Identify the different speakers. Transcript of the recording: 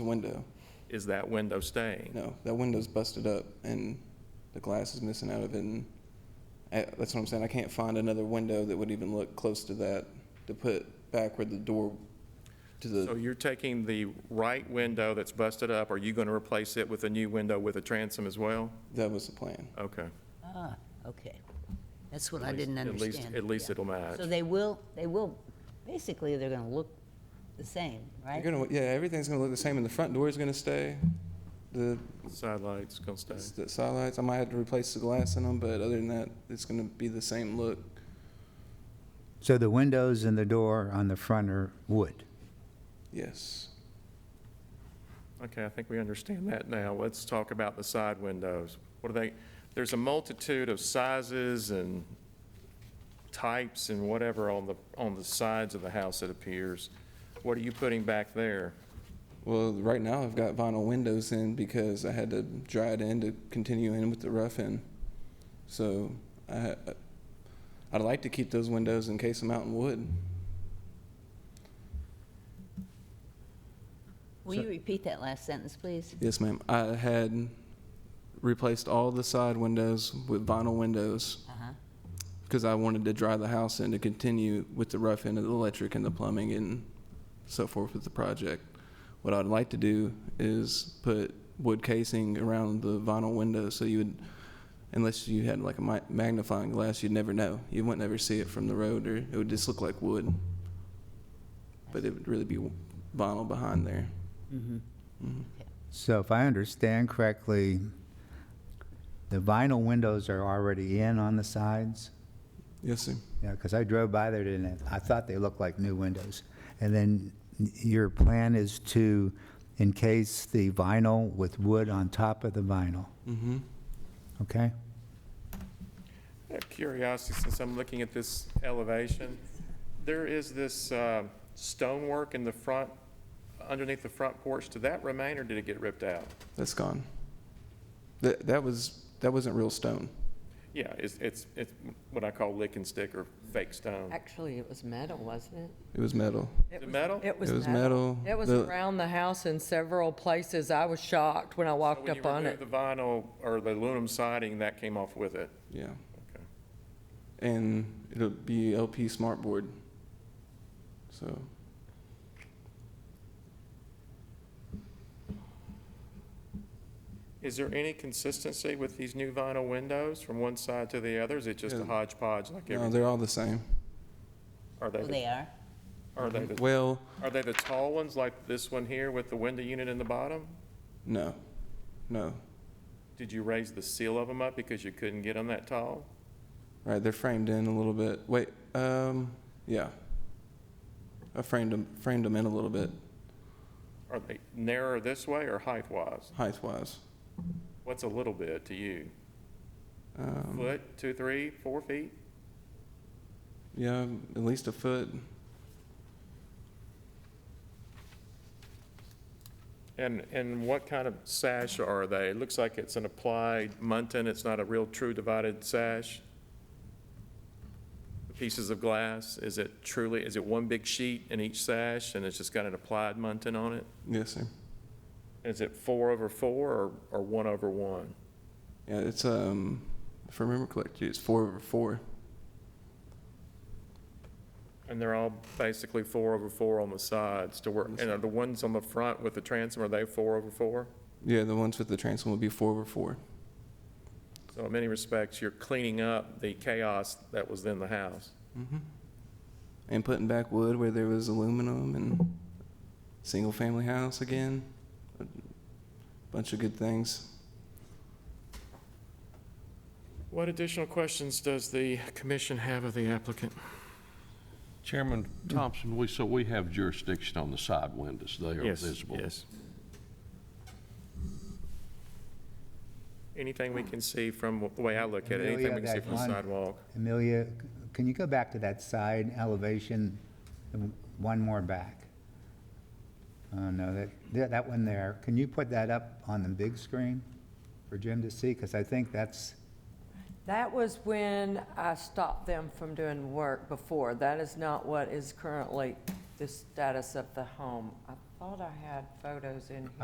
Speaker 1: the window.
Speaker 2: Is that window staying?
Speaker 1: No, that window's busted up and the glass is missing out of it. And I, that's what I'm saying. I can't find another window that would even look close to that to put back where the door to the.
Speaker 2: So you're taking the right window that's busted up, are you going to replace it with a new window with a transom as well?
Speaker 1: that was the plan.
Speaker 2: Okay.
Speaker 3: Ah, okay. That's what I
Speaker 2: At least-
Speaker 3: didn't
Speaker 2: at least-
Speaker 3: understand.
Speaker 2: At least it'll match.
Speaker 3: So they will, they will, basically, they're gonna look the same, right?
Speaker 1: You're gonna, yeah, everything's gonna look the same, and the front door is gonna stay. The,
Speaker 2: Side lights gonna stay.
Speaker 1: the side lights, I might have to replace the glass in them, but other than that, it's gonna be the same look.
Speaker 4: So the windows and the door on the front are wood.
Speaker 1: Yes.
Speaker 2: Okay, I think we understand that now. Let's talk about the side windows. What are they, there's a multitude of sizes and types and whatever on the, on the sides of the house, it appears. What are you putting back there?
Speaker 1: Well, right now I've got vinyl windows in because I had to dry it in to continue in with the rough in. So I, I'd like to keep those windows and case them out in wood.
Speaker 3: Will you repeat that last sentence, please?
Speaker 1: Yes, ma'am. I had replaced all the side windows with vinyl windows
Speaker 3: Uh-huh.
Speaker 1: because I wanted to dry the house in to continue with the rough end of the electric and the plumbing and so forth with the project. What I'd like to do is put wood casing around the vinyl windows so you would, unless you had like a mi- magnifying glass, you'd never know. You wouldn't ever see it from the road, or it would just look like wood. But it would really be vinyl behind there.
Speaker 4: So if I understand correctly, the vinyl windows are already in on the sides?
Speaker 1: Yes, sir.
Speaker 4: Yeah, because I drove by there today, and I thought they looked like new windows. And then your plan is to encase the vinyl with wood on top of the vinyl,
Speaker 1: Mm-hmm.
Speaker 4: okay?
Speaker 2: I have curiosity, since I'm looking at this elevation, there is this uh, stonework in the front, underneath the front porch. Did that remain, or did it get ripped out?
Speaker 1: That's gone. That that was that wasn't real stone.
Speaker 2: Yeah, it's, it's, it's what I call lick and stick or fake stone.
Speaker 5: Actually, it was metal, wasn't
Speaker 1: It was metal.
Speaker 5: it?
Speaker 2: was- metal?
Speaker 5: It was
Speaker 1: It was
Speaker 5: metal.
Speaker 1: metal.
Speaker 5: It was
Speaker 1: The-
Speaker 5: around the house in several places. I was shocked when I walked
Speaker 2: When you
Speaker 5: up on
Speaker 2: remove
Speaker 5: it.
Speaker 2: The vinyl or the aluminum siding, that came off with it.
Speaker 1: Yeah,
Speaker 2: Okay.
Speaker 1: and it'll be LP smartboard. So
Speaker 2: Is there any consistency with these new vinyl windows from one side to the other? Is it just a
Speaker 1: Yeah.
Speaker 2: hodgepodge like
Speaker 1: no,
Speaker 2: everything?
Speaker 1: they're all the same.
Speaker 2: Are they,
Speaker 3: Well,
Speaker 2: the-
Speaker 3: they are.
Speaker 2: are they, the-
Speaker 1: Well,
Speaker 2: are they the tall ones like this one here with the window unit in the bottom?
Speaker 1: no, no.
Speaker 2: Did you raise the seal of them up because you couldn't get them that tall?
Speaker 1: Right, they're framed in a little bit. Wait, um, yeah. I framed them framed them in a little bit
Speaker 2: Are they narrower this way or height-wise?
Speaker 1: height wise.
Speaker 2: What's a little bit to you?
Speaker 1: Um,
Speaker 2: Foot, two, three, four feet?
Speaker 1: yeah, at least a foot.
Speaker 2: And, and what kind of sash are they? It looks like it's an applied muntin, it's not a real true divided sash? The Pieces of glass, is it truly, is it one big sheet in each sash and it's just got an applied muntin on it?
Speaker 1: Yes, sir.
Speaker 2: Is it four over four or, or one over one?
Speaker 1: Yeah, it's um, if I remember correctly, it's four over four.
Speaker 2: And they're all basically four over four on the sides to work, and are the ones on the front with the transom, are they four over four?
Speaker 1: Yeah, the ones with the transom will be four over four.
Speaker 2: So in many respects, you're cleaning up the chaos that was in the house.
Speaker 1: and putting back wood where there was aluminum and single family house again. A bunch of good things.
Speaker 2: What additional questions does the commission have of the applicant?
Speaker 6: Chairman
Speaker 2: Mm.
Speaker 6: Thompson, we, so we have jurisdiction on the side windows. They are
Speaker 2: Yes,
Speaker 6: visible.
Speaker 2: yes. Anything we can see from, the way I look at it,
Speaker 4: Amelia,
Speaker 2: anything we can see
Speaker 4: that
Speaker 2: from the
Speaker 4: one-
Speaker 2: sidewalk?
Speaker 4: Amelia, can you go back to that side elevation, and one more back? Oh, no, that- that, that one there, can you put that up on the big screen for Jim to see? Because I think that's,
Speaker 5: That was when I stopped them from doing work before. That is not what is currently the status of the home. I thought I had photos in here.